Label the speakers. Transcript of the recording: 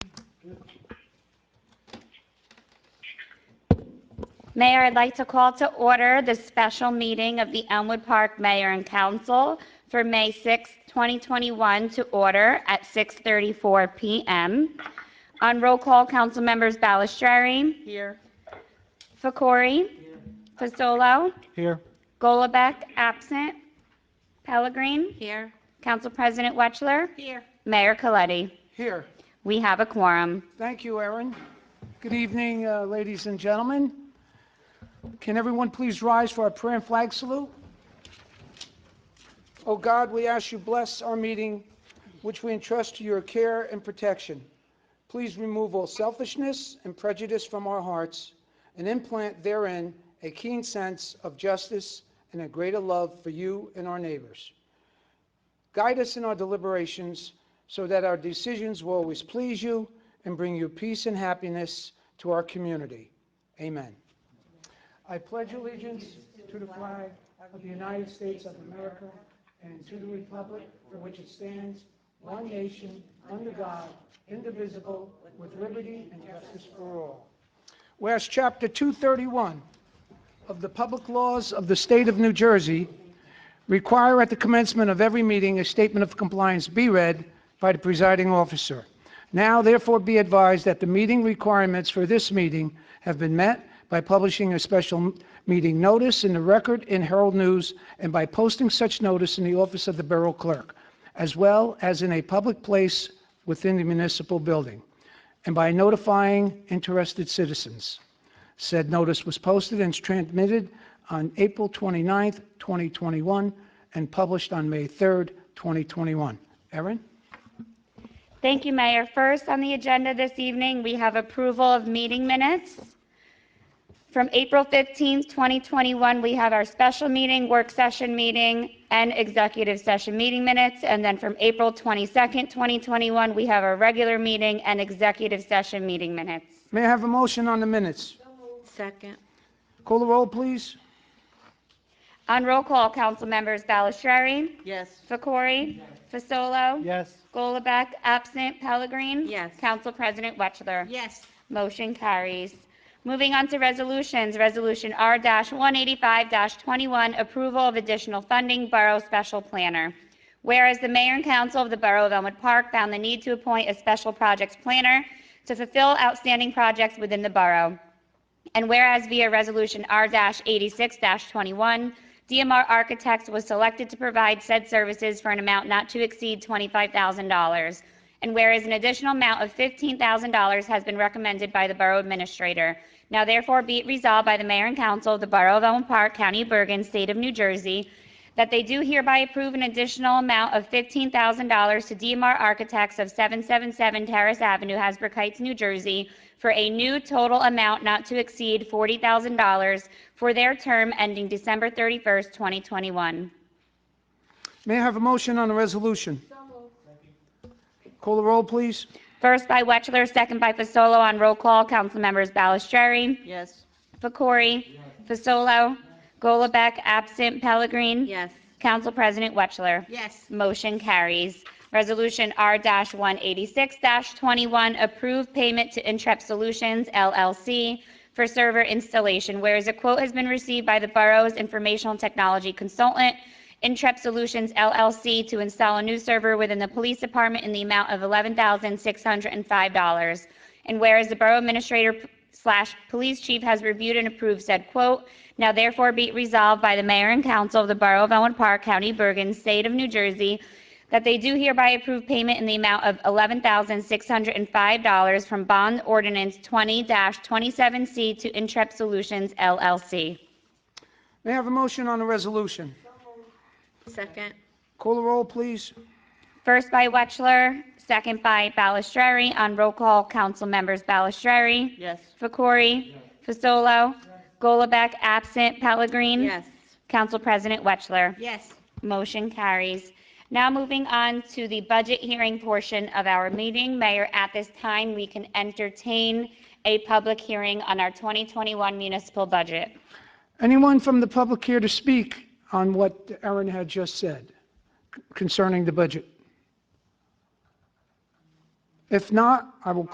Speaker 1: Mayor, I'd like to call to order the special meeting of the Elmwood Park Mayor and Council for May 6, 2021, to order at 6:34 PM. On roll call, council members Balistrary,
Speaker 2: Here.
Speaker 1: Fakori, Fasolo,
Speaker 3: Here.
Speaker 1: Golubek, absent, Pellegrin,
Speaker 2: Here.
Speaker 1: Council President Wetchler,
Speaker 2: Here.
Speaker 1: Mayor Coletti.
Speaker 3: Here.
Speaker 1: We have a quorum.
Speaker 3: Thank you, Erin. Good evening, uh, ladies and gentlemen. Can everyone please rise for our prayer and flag salute? Oh God, we ask you bless our meeting, which we entrust to your care and protection. Please remove all selfishness and prejudice from our hearts and implant therein a keen sense of justice and a greater love for you and our neighbors. Guide us in our deliberations so that our decisions will always please you and bring you peace and happiness to our community. Amen. I pledge allegiance to the flag of the United States of America and to the republic for which it stands, one nation, under God, indivisible, with liberty and justice for all. Whereas Chapter 231 of the Public Laws of the State of New Jersey require at the commencement of every meeting a statement of compliance be read by the presiding officer. Now therefore be advised that the meeting requirements for this meeting have been met by publishing a special m- meeting notice in the record in Herald News and by posting such notice in the office of the Borough Clerk, as well as in a public place within the municipal building, and by notifying interested citizens. Said notice was posted and transmitted on April 29th, 2021, and published on May 3rd, 2021. Erin?
Speaker 1: Thank you, Mayor. First on the agenda this evening, we have approval of meeting minutes. From April 15th, 2021, we have our special meeting, work session meeting, and executive session meeting minutes. And then from April 22nd, 2021, we have our regular meeting and executive session meeting minutes.
Speaker 3: May I have a motion on the minutes?
Speaker 2: Second.
Speaker 3: Call the roll, please.
Speaker 1: On roll call, council members Ballastreary,
Speaker 2: Yes.
Speaker 1: Fakori, Fasolo,
Speaker 3: Yes.
Speaker 1: Golubek, absent, Pellegrin.
Speaker 2: Yes.
Speaker 1: Council President Wetchler.
Speaker 2: Yes.
Speaker 1: Motion carries. Moving on to resolutions, Resolution R-185-21, approval of additional funding, Borough Special Planner. Whereas the mayor and council of the Borough of Elmwood Park found the need to appoint a special projects planner to fulfill outstanding projects within the borough. And whereas via Resolution R-86-21, DMR Architects was selected to provide said services for an amount not to exceed $25,000. And whereas an additional amount of $15,000 has been recommended by the Borough Administrator. Now therefore be it resolved by the Mayor and Council of the Borough of Elmwood Park, County of Bergen, State of New Jersey, that they do hereby approve an additional amount of $15,000 to DMR Architects of 777 Terrace Avenue, Hasbrook Heights, New Jersey, for a new total amount not to exceed $40,000 for their term ending December 31st, 2021.
Speaker 3: May I have a motion on the resolution? Call the roll, please.
Speaker 1: First by Wetchler, second by Fasolo on roll call. Councilmembers Ballastreary,
Speaker 2: Yes.
Speaker 1: Fakori, Fasolo, Golubek, absent, Pellegrin.
Speaker 2: Yes.
Speaker 1: Council President Wetchler.
Speaker 2: Yes.
Speaker 1: Motion carries. Resolution R-186-21, approve payment to Intrep Solutions LLC for server installation, whereas a quote has been received by the borough's informational technology consultant, Intrep Solutions LLC, to install a new server within the police department in the amount of $11,605. And whereas the Borough Administrator slash Police Chief has reviewed and approved said quote, now therefore be it resolved by the Mayor and Council of the Borough of Elmwood Park, County of Bergen, State of New Jersey, that they do hereby approve payment in the amount of $11,605 from Bond Ordinance 20-27C to Intrep Solutions LLC.
Speaker 3: May I have a motion on the resolution?
Speaker 2: Second.
Speaker 3: Call the roll, please.
Speaker 1: First by Wetchler, second by Balistrary. On roll call, council members Balistrary,
Speaker 2: Yes.
Speaker 1: Fakori, Fasolo, Golubek, absent, Pellegrin.
Speaker 2: Yes.
Speaker 1: Council President Wetchler.
Speaker 2: Yes.
Speaker 1: Motion carries. Now moving on to the budget hearing portion of our meeting. Mayor, at this time, we can entertain a public hearing on our 2021 municipal budget.
Speaker 3: Anyone from the public here to speak on what Erin had just said concerning the budget? If not, I will